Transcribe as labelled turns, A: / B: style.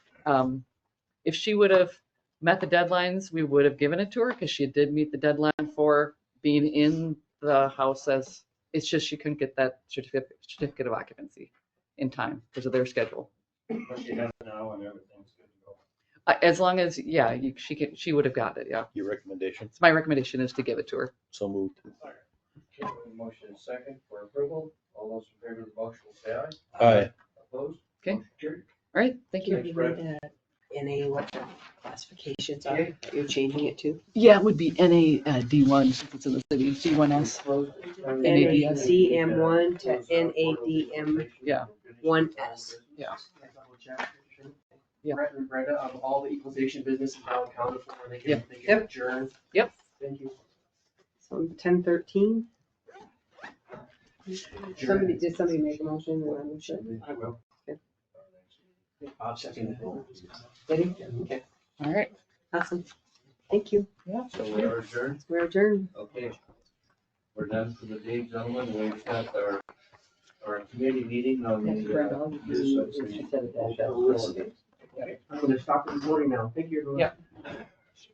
A: Um, if she would have met the deadlines, we would have given it to her because she did meet the deadline for being in the house as, it's just she couldn't get that certificate, certificate of occupancy in time because of their schedule.
B: But she has it now and everything's good to go.
A: Uh, As long as, yeah, you- she could, she would have got it, yeah.
C: Your recommendation,
A: So my recommendation is to give it to her.
C: so moved.
B: Okay, Motion is second for approval. All those in favor of the motion will say aye.
C: Aye.
B: Opposed?
A: Okay.
B: Motion carried.
A: All right, thank
D: Do
A: you.
D: you
B: Fred.
D: need to- NA what the classifications are, that you're changing it to?
A: Yeah, it would be NA D1 since it's in the city, D1S.
B: Closed.
A: NADS.
D: NADM1 to NADM.
A: Yeah.
D: 1S.
A: Yeah. Yeah.
E: Brett and Brenda,
B: um,
E: of all the equalization business in Allen County, before they
A: Yeah.
E: can, they can adjourn.
A: Yep.
E: Thank you.
D: So ten thirteen? Somebody,
E: Adjourn.
D: did somebody make a motion? or we should?
E: I will.
D: Okay.
E: Bob seconded.
D: Did he? Okay,
A: All right.
D: awesome. Thank you.
B: So we are adjourned.
D: We're adjourned.
B: Okay. We're done for the day, gentlemen. We've got our, our committee meeting on the. uh,
E: I'm gonna stop the recording now. Thank you, everyone.
A: Yeah.